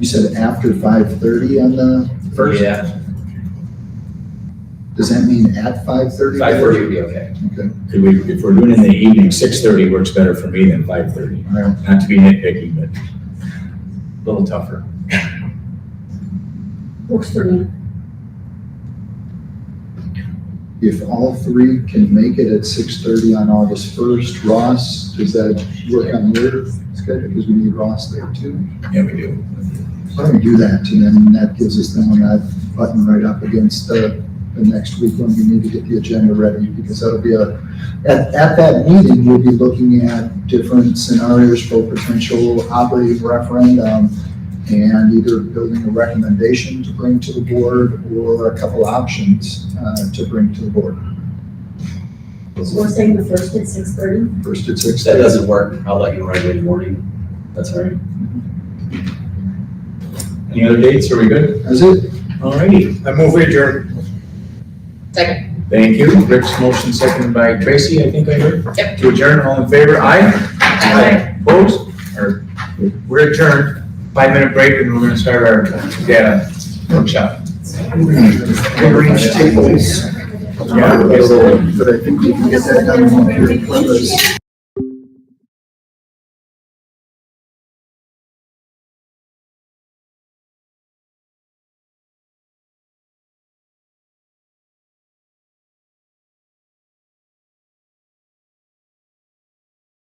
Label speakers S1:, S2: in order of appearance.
S1: You said after five thirty on the first?
S2: Yeah,
S1: Does that mean at five thirty?
S2: five thirty would be okay.
S1: Okay,
S3: Could we, if we're doing it in the evening, six thirty works better for me than five thirty.
S1: all right.
S3: Not to be nitpicky, but
S2: A little tougher.
S4: Works for me.
S1: If all three can make it at six thirty on August first, Ross, does that work on your schedule? Because we need Ross there too.
S3: yeah, we do.
S1: Why don't we do that? And then that gives us then when I button right up against the, the next week when we need to get the agenda ready because that'll be a, at, at that meeting, we'll be looking at different scenarios for potential operating referendum and either building a recommendation to bring to the board or a couple options uh, to bring to the board.
S4: So we're saying the first at six thirty?
S1: First at
S2: If
S1: six.
S2: that doesn't work, I'll let you know right away in the morning. That's all right.
S3: Any other dates? Are we good?
S1: That's it.
S3: Alrighty,
S5: I move adjourned.
S3: thank you. Rick's motion seconded by Tracy, I think I heard.
S6: Yep.
S3: To adjourn, all in favor? Aye?
S6: Aye.
S3: Opposed? Or, we're adjourned. Five minute break and we're gonna start our, yeah, workshop.
S1: Arrange tables.
S3: Yeah, we'll-
S1: But I think we can get that done. on here.